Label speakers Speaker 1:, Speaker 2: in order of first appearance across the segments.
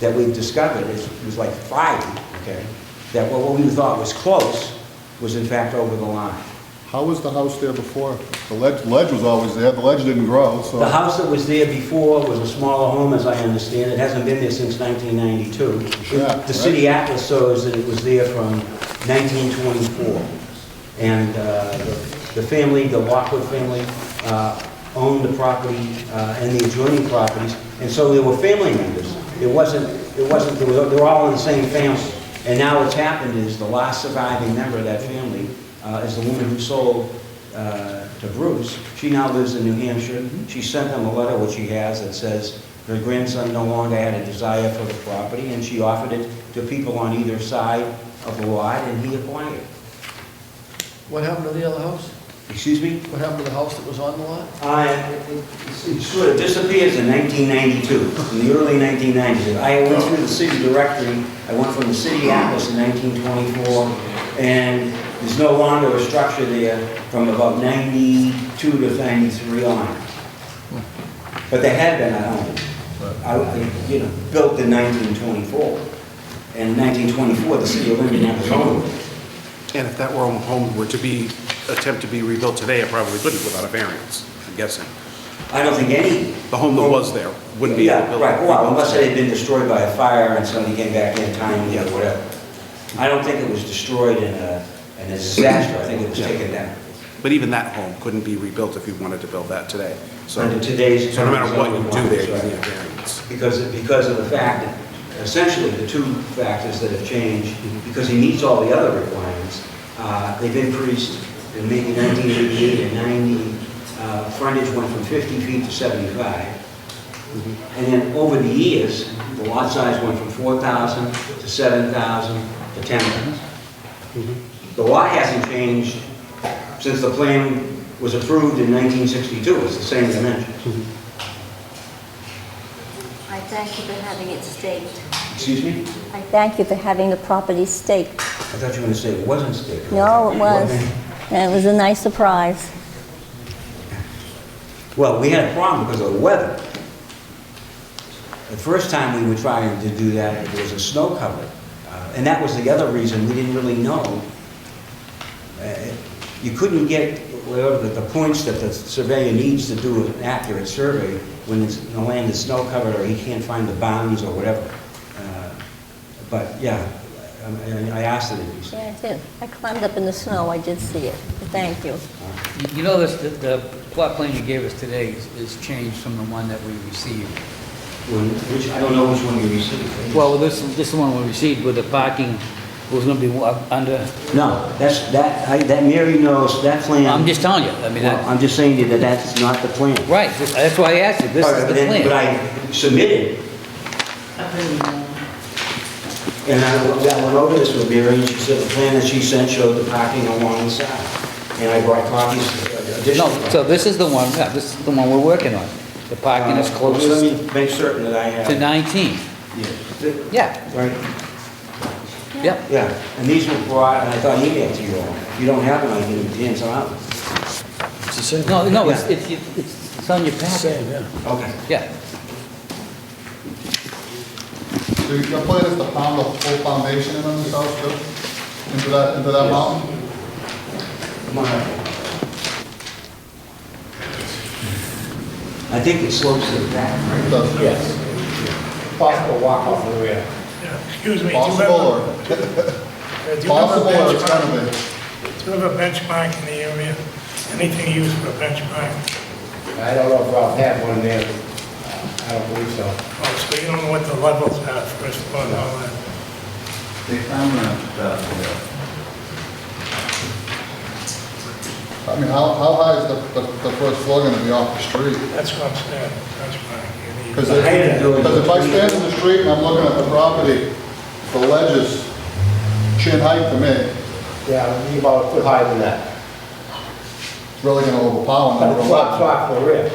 Speaker 1: that we've discovered, is- it was like five, okay, that what we thought was close was in fact over the line.
Speaker 2: How was the house there before? The ledge, ledge was always there, the ledge didn't grow, so...
Speaker 1: The house that was there before was a smaller home, as I understand it, hasn't been there since 1992.
Speaker 2: Yeah,
Speaker 1: The city atlas shows that it was there from 1924. And uh, the- the family, the Lockwood family, uh, owned the property uh, and the adjoining properties, and so there were family members. It wasn't, it wasn't, they were they were all in the same family. And now what's happened is the last surviving member of that family uh, is the woman who sold uh, to Bruce. She now lives in New Hampshire. She sent him a letter, which she has, that says her grandson no longer had a desire for the property, and she offered it to people on either side of the lot, and he acquired it.
Speaker 3: What happened to the other house?
Speaker 1: Excuse me?
Speaker 3: What happened to the house that was on the lot?
Speaker 1: I, it- it it sort of disappears in 1992, in the early 1990s. I went through the city directory, I went from the city atlas in 1924, and there's no longer a structure there from about 92 to 93 on. But there had been a home, I- I- you know, built in 1924. And in 1924, the city of Linden had a home.
Speaker 4: And if that were a home were to be, attempt to be rebuilt today, it probably couldn't without a variance, I'm guessing.
Speaker 1: I don't think any
Speaker 4: The home that was there wouldn't be able to
Speaker 1: Yeah,
Speaker 4: build.
Speaker 1: right, well, unless it had been destroyed by a fire and somebody came back in time, you know, whatever. I don't think it was destroyed in a, in a disaster, I think it was
Speaker 4: Yeah.
Speaker 1: taken down.
Speaker 4: But even that home couldn't be rebuilt if you wanted to build that today. So,
Speaker 1: Under today's
Speaker 4: so no matter what you
Speaker 1: terms,
Speaker 4: do there,
Speaker 1: right.
Speaker 4: you need a variance.
Speaker 1: Because, because of the fact, that essentially the two factors that have changed, because he meets all the other requirements, uh, they've increased in maybe 1988 and 90, uh, frontage went from 50 feet to 75. And then over the years, the lot size went from 4,000 to 7,000 to 10,000. The lot hasn't changed since the plan was approved in 1962, it's the same dimension.
Speaker 5: I thank you for having it staked.
Speaker 1: Excuse me?
Speaker 5: I thank you for having the property staked.
Speaker 1: I thought you were going to say it wasn't staked.
Speaker 5: No, it was. And it was a nice surprise.
Speaker 1: Well, we had a problem because of the weather. The first time we were trying to do that, it was a snow cover. Uh, And that was the other reason, we didn't really know. Uh, You couldn't get, well, the the points that the surveyor needs to do an accurate survey when it's- the land is snow covered or he can't find the bounds or whatever. Uh, But, yeah, I- I I asked it to be so.
Speaker 5: Yeah, I did. I climbed up in the snow, I did see it. Thank you.
Speaker 6: You- You know, this, the- the plot plan you gave us today is- is changed from the one that we received.
Speaker 1: When- Which, I don't know which one you received.
Speaker 6: Well, this, this one we received with the parking was gonna be wa- under,
Speaker 1: No, that's, that, I, that Mary knows, that plan.
Speaker 6: I'm just telling you, I mean,
Speaker 1: Well,
Speaker 6: I-
Speaker 1: I'm just saying to you that that's not the plan.
Speaker 6: right, this- that's why I asked you, this is
Speaker 1: But
Speaker 6: the
Speaker 1: then- But
Speaker 6: plan.
Speaker 1: I submitted, and I, I went over this with Mary, and she said the plan that she sent showed the parking along the side. And I brought copies, uh, additional.
Speaker 6: No, so this is the one, yeah, this is the one we're working on. The parking is
Speaker 1: Uh, Let
Speaker 6: closest
Speaker 1: me make certain that I have.
Speaker 6: to 19.
Speaker 1: Yeah.
Speaker 6: Yeah,
Speaker 1: Right,
Speaker 6: yeah.
Speaker 1: yeah, and these were brought, and I thought you had to you all. If you don't have them, I can hand them out.
Speaker 6: No, no, it's,
Speaker 1: Yeah.
Speaker 6: it's, it's it's on your packet.
Speaker 1: Okay.
Speaker 6: Yeah,
Speaker 2: So your plan is to pound the whole foundation in on this house, too? Into that, into that mountain?
Speaker 1: Come on up. I think it slopes to the back, right?
Speaker 2: It does.
Speaker 7: Yes. Possible walk off the rear.
Speaker 8: Excuse me. do you have a-
Speaker 2: Possible, or,
Speaker 8: uh, do you have a
Speaker 2: possible, or it's
Speaker 8: benchmark?
Speaker 2: gonna be?
Speaker 8: Do you have a benchmark in the area? Anything used for a benchmark?
Speaker 7: I don't know if Ralph had one there. I don't believe so.
Speaker 8: Oh, so you don't know what the levels are, first of all, and all that.
Speaker 9: They found that, uh,
Speaker 2: I mean, how, how high is the, the, the first floor gonna be off the street?
Speaker 8: That's what I'm saying, benchmark. you need-
Speaker 2: Because if, because if I stand in the street and I'm looking at the property, the ledge is chin height to me, it's
Speaker 7: Yeah, it'd be about a foot higher than that.
Speaker 2: really gonna overpower
Speaker 7: But
Speaker 2: number
Speaker 7: it's off, it's
Speaker 2: one.
Speaker 7: off the rear.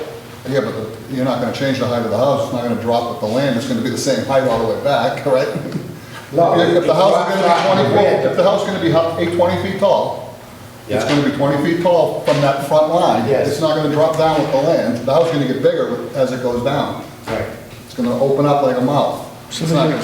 Speaker 2: Yeah, but the- you're not gonna change the height of the house, it's not gonna drop with the land, it's gonna be the same height all the way back, right?
Speaker 7: No,
Speaker 2: If if
Speaker 7: it's
Speaker 2: the house is
Speaker 7: off
Speaker 2: gonna
Speaker 7: the
Speaker 2: be twenty,
Speaker 7: rear.
Speaker 2: if the house is gonna be hu- eight, twenty feet tall, it's
Speaker 7: Yeah.
Speaker 2: gonna be twenty feet tall from that front line.
Speaker 7: Yes.
Speaker 2: It's not gonna drop down with the land, the house is gonna get bigger as it goes down.
Speaker 7: Right.
Speaker 2: It's gonna open up like a mouth. So
Speaker 10: It's
Speaker 2: they're
Speaker 10: not
Speaker 2: gonna-